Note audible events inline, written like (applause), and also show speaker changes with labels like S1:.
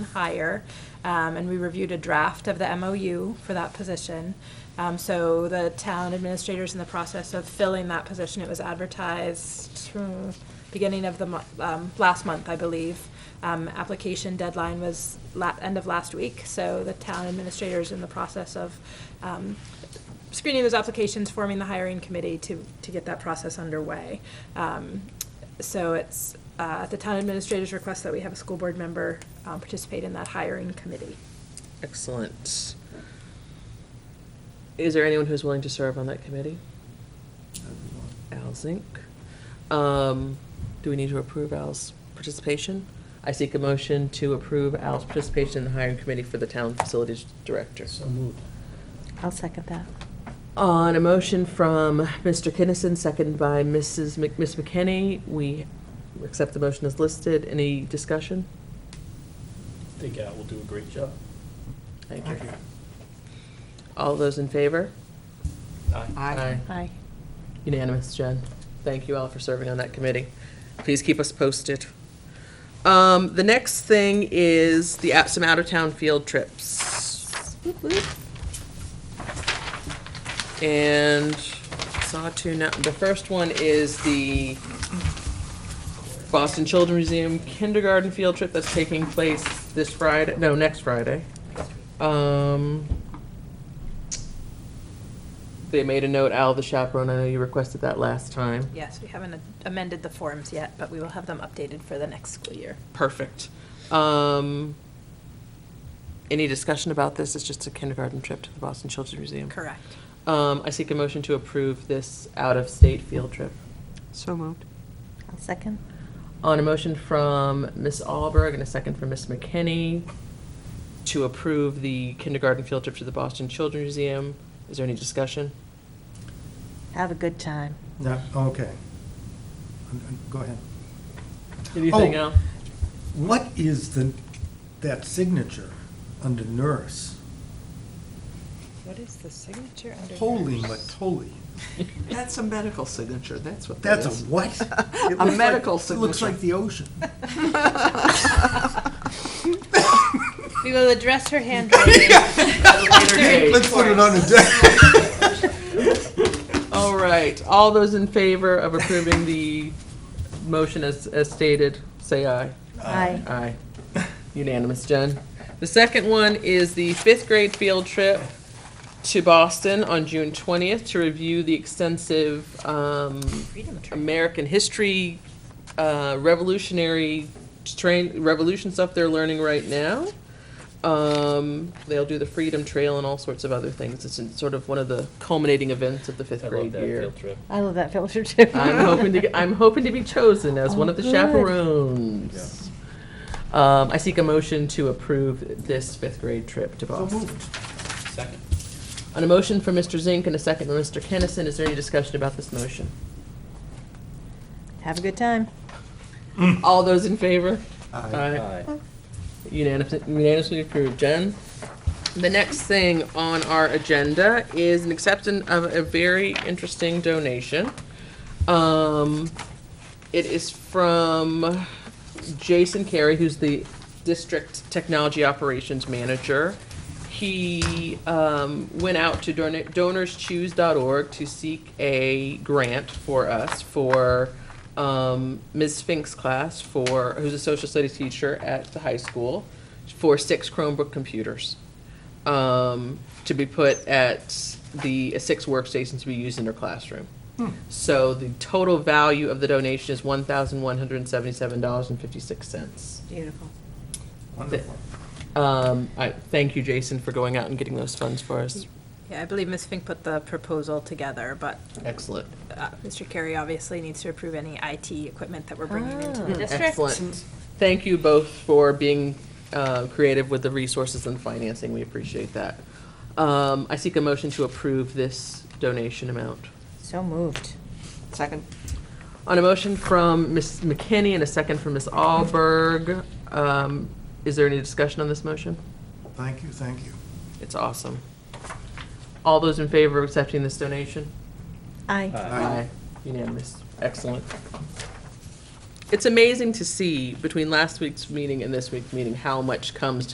S1: hire. Um, and we reviewed a draft of the MOU for that position. Um, so the town administrator's in the process of filling that position. It was advertised uh, beginning of the mo- um, last month, I believe. Um, application deadline was la- end of last week. So the town administrator's in the process of um, screening those applications, forming the hiring committee to, to get that process underway. Um, so it's uh, at the town administrator's request that we have a school board member um, participate in that hiring committee.
S2: Excellent. Is there anyone who's willing to serve on that committee? Al Zink. Um, do we need to approve Al's participation? I seek a motion to approve Al's participation in the hiring committee for the town facilities director.
S3: So moved.
S4: I'll second that.
S2: On a motion from Mr. Kinnison, seconded by Mrs. Mc, Ms. McKinney, we accept the motion as listed. Any discussion?
S3: I think Al will do a great job.
S2: Thank you. All those in favor?
S3: Aye.
S2: Aye.
S4: Aye.
S2: Unanimous, Jen. Thank you all for serving on that committee. Please keep us posted. Um, the next thing is the, out- some out-of-town field trips. Whoop, whoop. And saw two, now- the first one is the Boston Children's Museum kindergarten field trip that's taking place this Friday, no, next Friday. Um, they made a note, Al, the chaperone, I know you requested that last time.
S1: Yes, we haven't amended the forms yet, but we will have them updated for the next school year.
S2: Perfect. Um, any discussion about this? It's just a kindergarten trip to the Boston Children's Museum.
S1: Correct.
S2: Um, I seek a motion to approve this out-of-state field trip.
S5: So moved.
S4: I'll second.
S2: On a motion from Ms. Alberg and a second from Ms. McKinney to approve the kindergarten field trip to the Boston Children's Museum. Is there any discussion?
S4: Have a good time.
S6: No, okay. Um, um, Go ahead.
S2: Anything
S6: Oh.
S2: else?
S6: What is the, that signature under nurse?
S5: What is the signature under?
S6: Holy matoli.
S5: That's a medical signature, that's what
S6: That's a what? It looks
S5: (laughs) A
S6: like-
S5: medical
S6: It looks like
S5: signature.
S6: the
S5: (laughs)
S6: ocean. (laughs)
S4: We will address her handwriting. (laughs)
S6: Let's put it on a desk.
S2: All right, all those in favor of approving the motion as, as stated, say aye.
S4: Aye.
S2: Aye. (laughs) Unanimous, Jen. The second one is the fifth grade field trip to Boston on June twentieth to review the extensive, um, American history, uh, revolutionary train, revolution stuff they're learning right now. Um, they'll do the Freedom Trail and all sorts of other things. It's in- sort of one of the culminating events of the fifth
S3: I love
S2: grade
S3: that
S2: year.
S3: field trip.
S4: I love that filter too.
S2: I'm hoping to get, I'm hoping to be chosen as one of the
S4: Oh, good.
S2: chaperones. Um, I seek a motion to approve this fifth grade trip to
S6: So
S2: Boston.
S6: moved.
S3: Second.
S2: On a motion from Mr. Zink and a second from Mr. Kennison, is there any discussion about this motion?
S4: Have a good time.
S2: All those in favor?
S6: Aye.
S2: Unanimous- Unanimously approved. Jen? The next thing on our agenda is an acceptance of a very interesting donation. Um, it is from Jason Carey, who's the district technology operations manager. He um, went out to don- donorschoose.org to seek a grant for us for um, Ms. Fink's class for who's a social studies teacher at the high school for six Chromebook computers um, to be put at the uh, six workstations to be used in her classroom. So the total value of the donation is one thousand one hundred and seventy-seven dollars and fifty-six cents.
S4: Beautiful.
S6: Wonderful.
S2: Um, I thank you, Jason, for going out and getting those funds for us.
S1: (laughs) Yeah, I believe Ms. Fink put the proposal together, but
S2: Excellent.
S1: uh, Mr. Carey obviously needs to approve any IT equipment that we're bringing into the
S4: Ah.
S1: district.
S2: Excellent. Thank you both for being uh, creative with the resources and financing. We appreciate that. Um, I seek a motion to approve this donation amount.
S4: So moved.
S5: (laughs) Second.
S2: On a motion from Ms. McKinney and a second from Ms. Alberg, um, is there any discussion on this motion?
S6: Thank you, thank you.
S2: It's awesome. All those in favor of accepting this donation?
S4: Aye.
S3: Aye.
S2: Unanimous. Excellent. it's amazing to see between last week's meeting and this week's meeting how much comes to